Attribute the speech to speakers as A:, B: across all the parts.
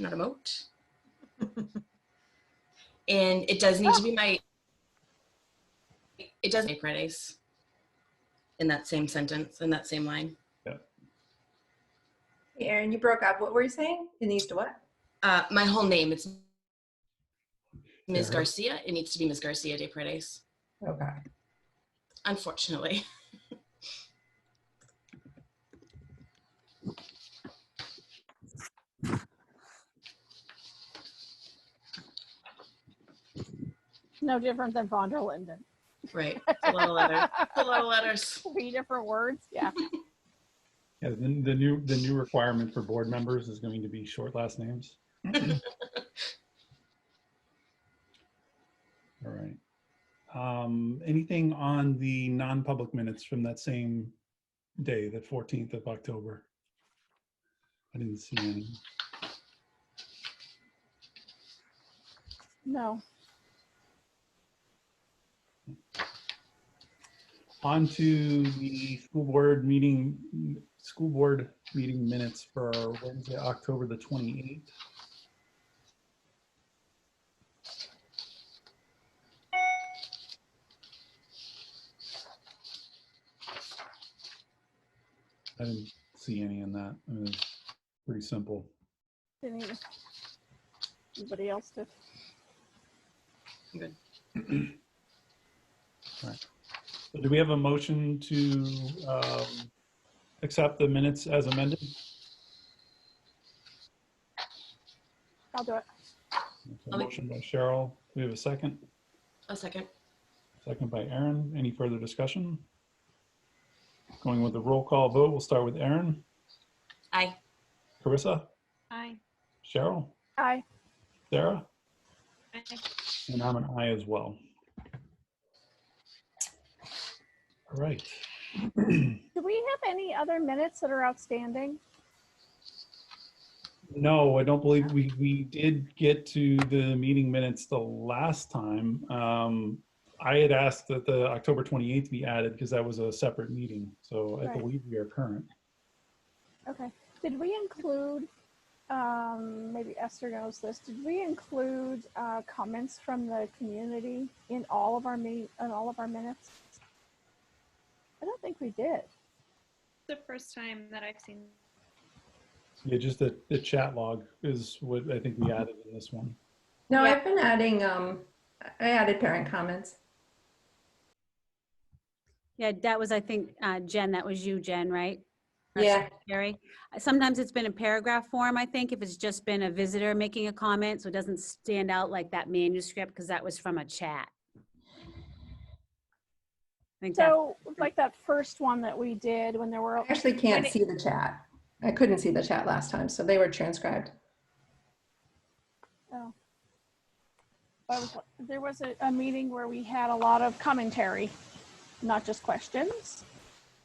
A: not a moat. and it does need to be my. It does make red ace. In that same sentence, in that same line,
B: Hey, Aaron, you broke up. What were you saying? It needs to what?
A: uh, my whole name it's Ms.
C: Yeah.
A: Garcia. It needs to be Ms. Garcia de Paredes.
B: Okay.
A: Unfortunately,
D: No different than von der Linden.
A: right? It's a lot of letters. It's A lot of letters.
D: Three different words. Yeah.
C: Yeah, then the new, the new requirement for board members is going to be short last names. All right. Um, anything on the non-public minutes from that same day, the 14th of October? I didn't see any.
D: No.
C: On to the school board meeting, school board meeting minutes for Wednesday, October the 28th. I didn't see any in that. It was pretty simple.
D: Didn't even- anybody else did.
A: Good.
C: So Do we have a motion to um, accept the minutes as amended?
D: I'll do it.
C: A Motion by Cheryl. Do we have a second?
A: A second.
C: Second by Aaron. Any further discussion? Going with the roll call vote, we'll start with Aaron,
A: Aye.
C: Carissa,
E: Aye.
C: Cheryl,
D: Aye.
C: Sarah,
E: Aye.
C: and I'm an I as well. All right.
D: Do we have any other minutes that are outstanding?
C: No, I don't believe we, we did get to the meeting minutes the last time. Um, I had asked that the October 28th be added because that was a separate meeting. So I
D: Right.
C: believe we are current.
D: Okay. Did we include, um, maybe Esther knows this, did we include, uh, comments from the community in all of our meet, in all of our minutes? I don't think we did.
E: The first time that I've seen.
C: Yeah, just the, the chat log is what I think we
E: Uh-huh.
C: added in this one.
B: No,
E: Yeah.
B: I've been adding, um, I added parent comments.
F: Yeah, that was, I think, uh, Jen, that was you, Jen, right? Our
B: Yeah.
F: secretary. Sometimes it's been in paragraph form, I think, if it's just been a visitor making a comment, so it doesn't stand out like that manuscript, because that was from a chat. I think that,
D: So like that first one that we did when there were,
B: I actually can't see the chat. I couldn't see the chat last time, so they were transcribed.
D: I was- there was a, a meeting where we had a lot of commentary, not just questions.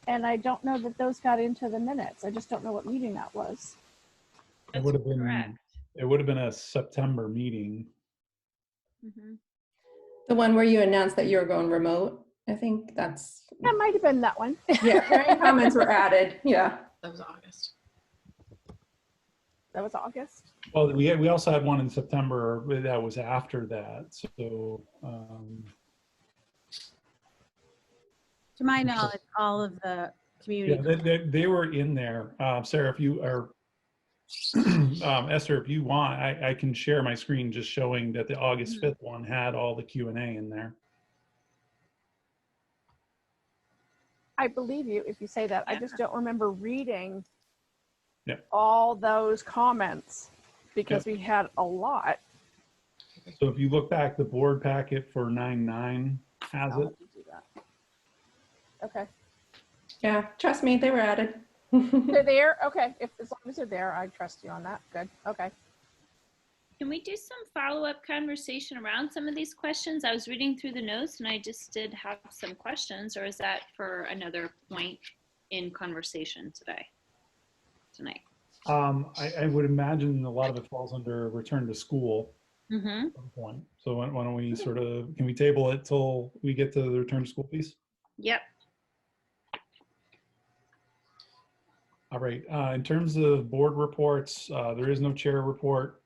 D: And I don't know that those got into the minutes. I just don't know what meeting that was.
C: It
E: that's
C: would have been-
E: Correct.
C: It would have been a September meeting.
F: mm-hmm.
E: Mhm.
B: The one where you announced that you were going remote, I think that's,
D: That might have been that one.
B: yeah, parent comments were added, yeah.
A: That was August.
D: That was August.
C: Well, we, we also had one in September but that was after that, so, um,
F: to my knowledge, all of the
C: yeah,
F: community,
C: they, they, they were in there. Uh, Sarah, if you are, um, Esther, if you want, I, I can share my screen just showing that the August
E: Mm-hmm.
C: 5th one had all the Q and A in there.
D: I believe you if you say that. I just don't remember reading
C: Yeah.
D: all those comments because we had a lot.
C: So if you look back, the board packet for 9-9 has
D: I'll
C: it.
D: let you do that. Okay,
B: Yeah, trust me, they were added.
D: they're there. Okay, if as long as they're there, I trust you on that. Good. Okay.
E: Can we do some follow-up conversation around some of these questions? I was reading through the notes and I just did have some questions, or is that for another point in conversation today? Tonight?
C: Um, I, I would imagine a lot of it falls under return to school.
E: Mm-hmm.
C: some point. So why why don't we sort of, can we table it till we get to the return to school piece?
E: Yep.
C: All right, uh, in terms of board reports, uh, there is no chair report.